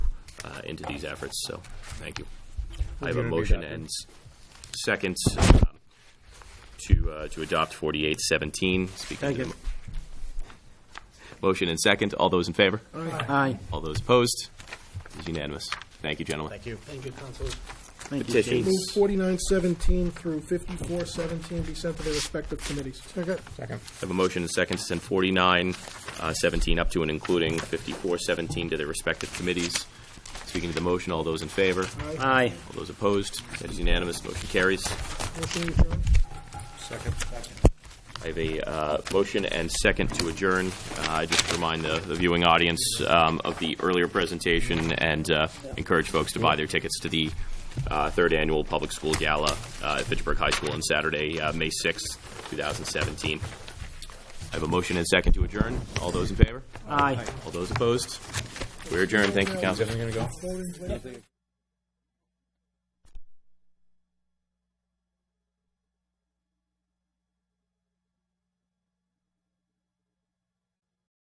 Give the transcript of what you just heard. uh, into these efforts, so, thank you. I have We're gonna a be motion back in. and s- second um, to, uh, to adopt 4817. Speaking to the Second. mo- Motion and second, all those in favor? Aye. All those opposed? It's unanimous. Thank you, gentlemen. Thank you. Thank you, Counselor. Thank you, Steve. Petitions. Move forty-nine seventeen through fifty-four seventeen be sent to their respective committees. Second. I have a motion and second to send 49, uh, 17 up to and including 54, 17 to their respective committees. Speaking to the motion, all those in favor? Aye. All those opposed? That is unanimous. Motion carries. Motion adjourned. I have a uh, motion and second to adjourn. Uh, I just remind the the viewing audience um, of the earlier presentation and uh, encourage folks to buy their tickets to the uh, Third Annual Public School Gala uh, at Fitchburg High School on Saturday, uh, May 6th, 2017. I have a motion and second to adjourn. All those in favor? Aye. All those opposed? We're adjourned. Thank you, council. Voting.